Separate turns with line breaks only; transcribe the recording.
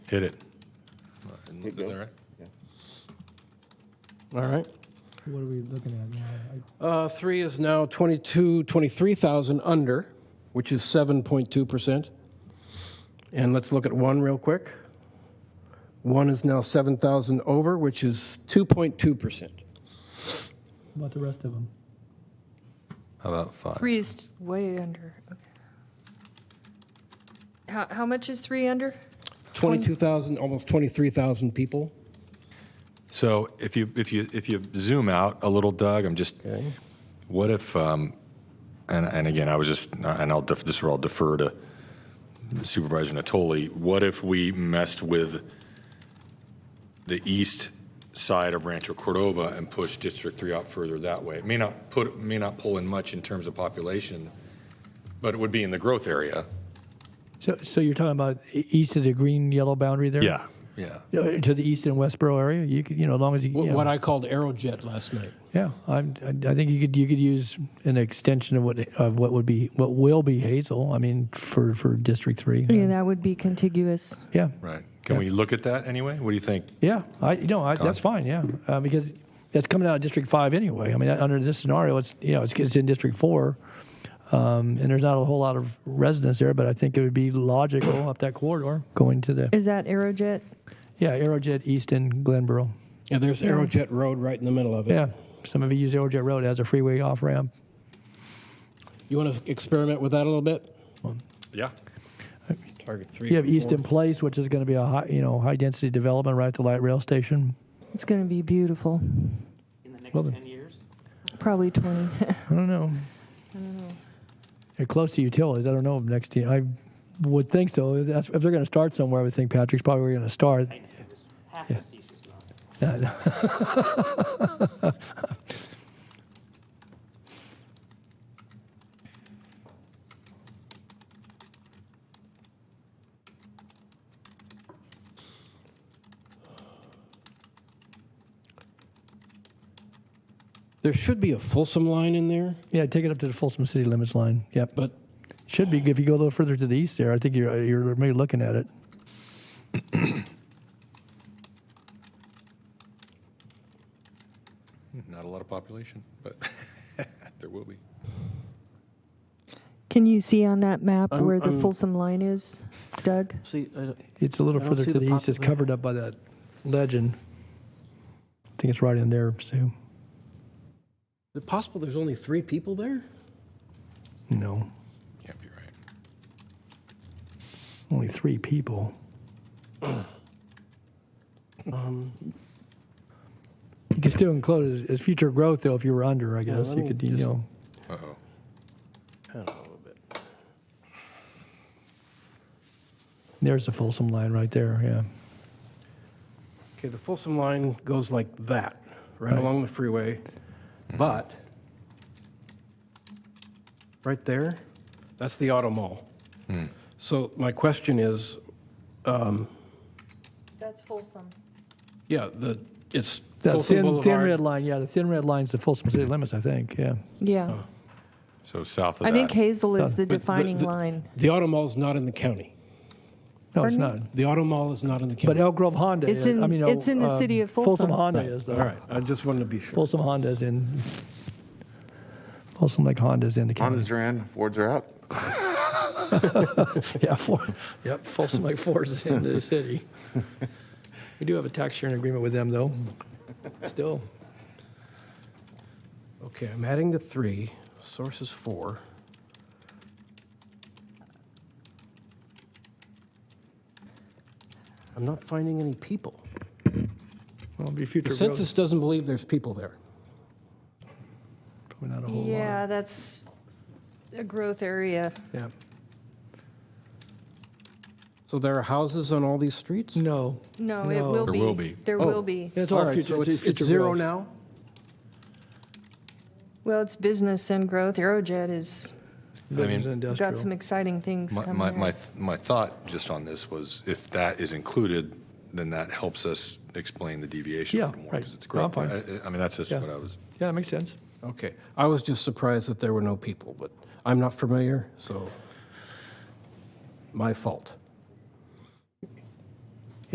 Hit it.
Is that right?
All right.
What are we looking at now?
Uh, three is now 22, 23,000 under, which is 7.2%. And let's look at one real quick. One is now 7,000 over, which is 2.2%.
I- About the rest of them?
How about five?
Three is way under, okay. How, how much is three under?
22,000, almost 23,000 people.
So if you if you if you zoom out a little, Doug, I'm just.
Okay.
What if? Um, and and again, I was just and I'll def- this will all defer to Supervisor Natoli. What if we messed with the east side of Rancho Cordova and pushed District Three out further that way? It may not put may not pull in much in terms of population, but it would be in the growth area.
So, so you're talking about e- east of the green yellow boundary there?
Yeah.
Uh, To the east and Westboro area, you could, you know, as long as you,
Wh-
yeah,
What I called Aerojet last night.
yeah, I'm, I, I think you could, you could use an extension of what, of what would be, what will be Hazel. I mean, for, for District Three.
Yeah, that would be contiguous.
Yeah,
Right. Can we look at that anyway? What do you think?
yeah, I, you know, I, that's fine. Yeah, uh, because that's coming out of District Five anyway. I mean, under this scenario, it's, you know, it's, it's in District Four, um, and there's not a whole lot of residents there, but I think it would be logical up that corridor going to the,
Is that Aerojet?
yeah, Aerojet East and Glenboro.
Yeah, there's Aerojet Road right in the middle of it.
Yeah, some of you use Aerojet Road as a freeway off ramp.
You want to experiment with that a little bit?
Yeah.
Target three.
You have
from
Easton
four.
Place, which is going to be a high, you know, high density development right at the light rail station.
It's going to be beautiful,
in the next
Well then.
10 years?
probably 20.
I don't know. I don't know. They're close to utilities. I don't know if next year. I would think so. If that's- if they're going to start somewhere, I would think Patrick's probably going to start.
I know, it was half facetious, not.
There should be a Folsom line in there,
Yeah, take it up to the Folsom City Limits line. Yep,
but
should be if you go a little further to the east there. I think you're you're maybe looking at it.
Not a lot of population, but there will be.
Can you see on that map
I'm-
where the
I'm-
Folsom line is, Doug?
see, I don't-
It's a little
I don't
further
see
to
the
the east. It's
poplar.
covered up by that legend. I think it's right in there, Sue.
Is it possible there's only three people there?
No,
Can't be right.
only three people.
Um.
you could still include it as, as future growth, though, if you were under, I guess.
let
you
me
could, you
just-
know.
Uh-oh.
There's the Folsom line right there, yeah.
Okay, the Folsom line goes like that, right along the freeway, but right there, that's the auto mall.
Hmm.
So my question is,
That's Folsom.
yeah, the, it's
The
Folsom
thin, thin red
Boulevard.
line, yeah, the thin red line's the Folsom city limits, I think, yeah.
Yeah.
So south of
I
that.
think Hazel is the
But the-
defining
the-
line.
The auto mall's not in the county.
No, it's
Pardon me?
not.
The auto mall is not in the county.
But Elk Grove Honda
It's
is,
in-
I mean,
it's in the
uh,
city of Folsom.
Folsom Honda
Right.
is,
All
though.
right, I just wanted to be sure.
Folsom Honda's in, Folsom Lake Honda's in the county.
Hondas are in, Fords are out.
Yeah, four, yep, Folsom Lake Forest in the city. We do have a tax sharing agreement with them, though, still.
Okay, I'm adding the three. Source is four. I'm not finding any people.
Well, it'll be future
The
growth.
census doesn't believe there's people there.
Probably not a whole lot.
Yeah, that's a growth area.
Yeah.
So there are houses on all these streets?
No,
No, it
No.
will
There
be.
will be.
There
Oh.
will be.
it's
All
all
right,
future,
so
it's
it's,
future
it's zero
growth.
now?
Well, it's business and growth. Aerojet has
Business and
got some
industrial.
exciting things
My,
coming.
my, my,
up.
my thought just on this was if that is included, then that helps us explain the deviation a
Yeah,
little more
right.
because it's
No, I'm
great. I, I- I mean, that's just
Yeah.
what I was,
Yeah, that makes sense.
Okay. I was just surprised that there were no people, but I'm not familiar, so my fault.